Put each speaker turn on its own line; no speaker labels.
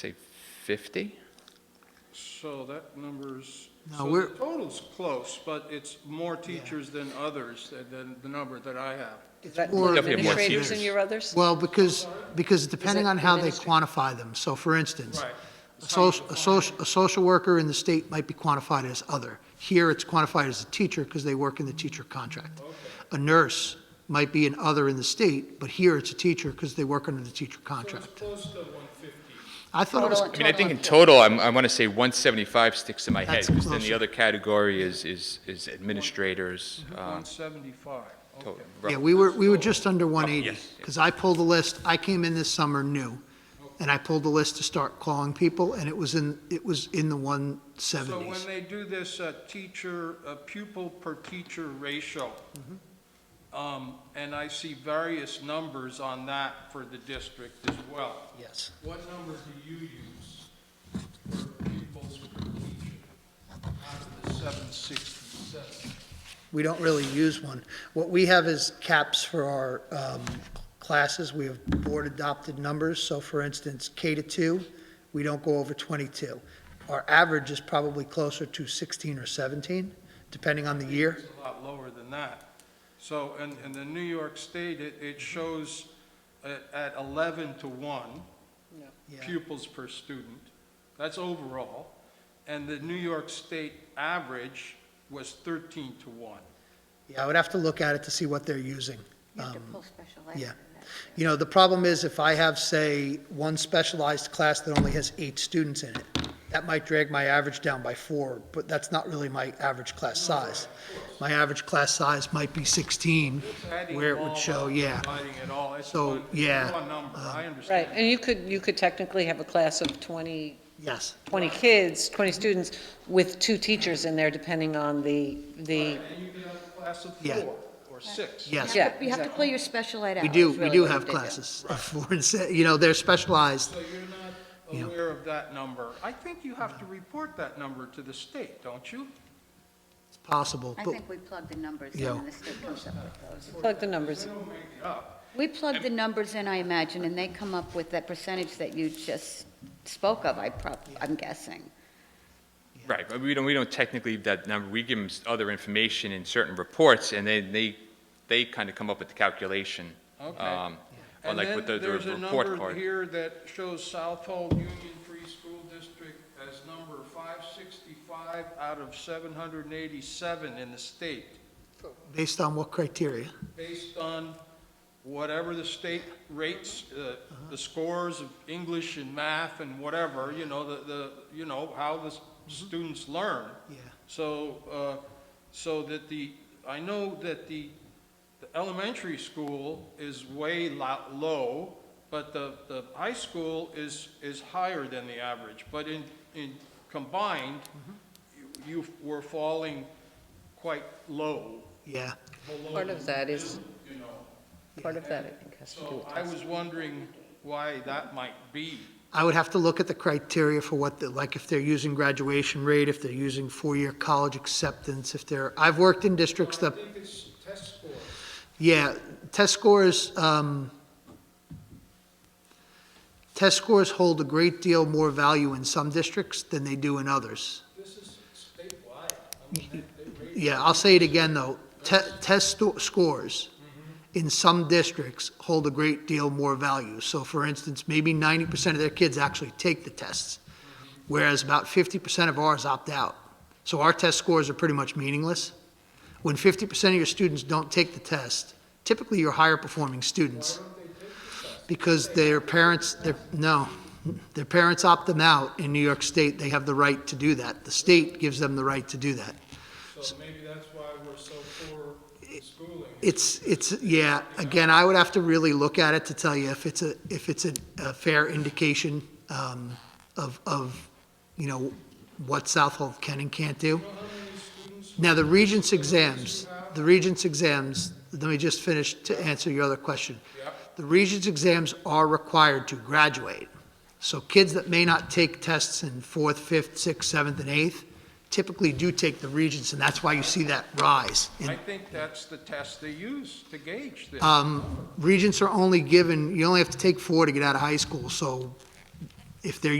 say 50?
So that number's,
No,
so the
we're-
total's close, but it's more teachers than others, than- than the number that I have.
Is that
Or-
Definitely more
administrators and
teachers.
your others?
Well, because, because depending
it
on how they
administrative?
quantify them, so for instance,
Right.
a social, a social, a social worker in the state might be quantified as other. Here, it's quantified as a teacher because they work in the teacher contract. A nurse might be an other in the state, but here it's a teacher because they work under the teacher contract.
close to 150.
I thought it was,
I mean, I think in total, I'm, I want to say 175 sticks in my head,
That's
because then the
closer.
other category is, is is administrators. um,
175,
to-
okay.
yeah, we were, we were just under 180.
yes, yeah.
Because I pulled the list, I came in this summer new, and I pulled the list to start calling people, and it was in, it was in the 170s.
So when they do this uh, teacher, uh, pupil per teacher ratio,
Mm-hmm.
um, and I see various numbers on that for the district as well,
Yes.
what number do you use for pupils per teacher out of the 767?
We don't really use one. What we have is caps for our um, classes. We have board-adopted numbers, so for instance, K to 2, we don't go over 22. Our average is probably closer to 16 or 17, depending on the year.
It's a lot lower than that. So, in, in the New York State, it, it shows at, at 11 to 1 pupils per student. That's overall. And the New York State average was 13 to 1.
Yeah, I would have to look at it to see what they're using.
You have to
Um,
pull special ed.
yeah.
from that.
You know, the problem is if I have, say, one specialized class that only has eight students in it, that might drag my average down by four, but that's not really my average class size. My average class size might be 16,
Adding
where it
all
would show,
up,
yeah.
Dividing it all, it's
So,
one,
yeah, uh,
it's one number, I understand.
Right, and you could, you could technically have a class of 20,
Yes,
20 kids, 20 students with two teachers in there, depending on the, the,
And you can have a class of
Yeah.
four or six.
yes.
Yeah,
You have to pull your special ed out.
We do,
is
we
really
do
what you
have
did do.
classes, of four and six, you know, they're specialized.
So you're
Yeah.
not aware of that number. I think you have to report that number to the state, don't you?
It's possible,
I
but
think we plug the numbers in
Yeah.
and the state comes up with those.
plug the numbers.
They don't make it up.
We plug the numbers in, I imagine, and they come up with that percentage that you just spoke of, I prob, I'm guessing.
Right, but we don't, we don't technically give that number, we give them other information in certain reports, and then they, they kind of come up with the calculation.
Okay.
um, Or like with the the
And then there's a
report
number
card.
here that shows Southold Union Free School District as number 565 out of 787 in the state,
based on what criteria?
based on whatever the state rates, uh, the scores of English and math and whatever, you know, the, the you know, how the s-
Mm-hmm.
students learn.
Yeah,
So, uh, so that the, I know that the, the elementary school is way lo- low, but the, the high school is, is higher than the average. But in, in combined, you- you were falling quite low.
yeah.
below
Part of that is,
You know,
part of that, I think, has to do
so
with
I
class.
was wondering why that might be.
I would have to look at the criteria for what, the like, if they're using graduation rate, if they're using four-year college acceptance, if they're, I've worked in districts that,
think it's test scores.
yeah, test scores, um, test scores hold a great deal more value in some districts than they do in others.
This is statewide.
Yeah, I'll say it again, though. Te- Test sto- scores in some districts hold a great deal more value. So for instance, maybe 90% of their kids actually take the tests, whereas about 50% of ours opt out. So our test scores are pretty much meaningless. When 50% of your students don't take the test, typically your higher performing students. Because their parents, their, no, their parents opt them out. In New York State, they have the right to do that. The state gives them the right to do that.
So maybe that's why we're so poor in schooling.
It's, it's, yeah, again, I would have to really look at it to tell you if it's a, if it's a, a fair indication, um, of, of, you know, what Southold can and can't do. Now, the Regents exams, the Regents exams, let me just finish to answer your other question. The Regents exams are required to graduate. So kids that may not take tests in fourth, fifth, sixth, seventh, and eighth typically do take the Regents, and that's why you see that rise in
I think that's the test they use to gauge this.
regents are only given, you only have to take four to get out of high school, so if they're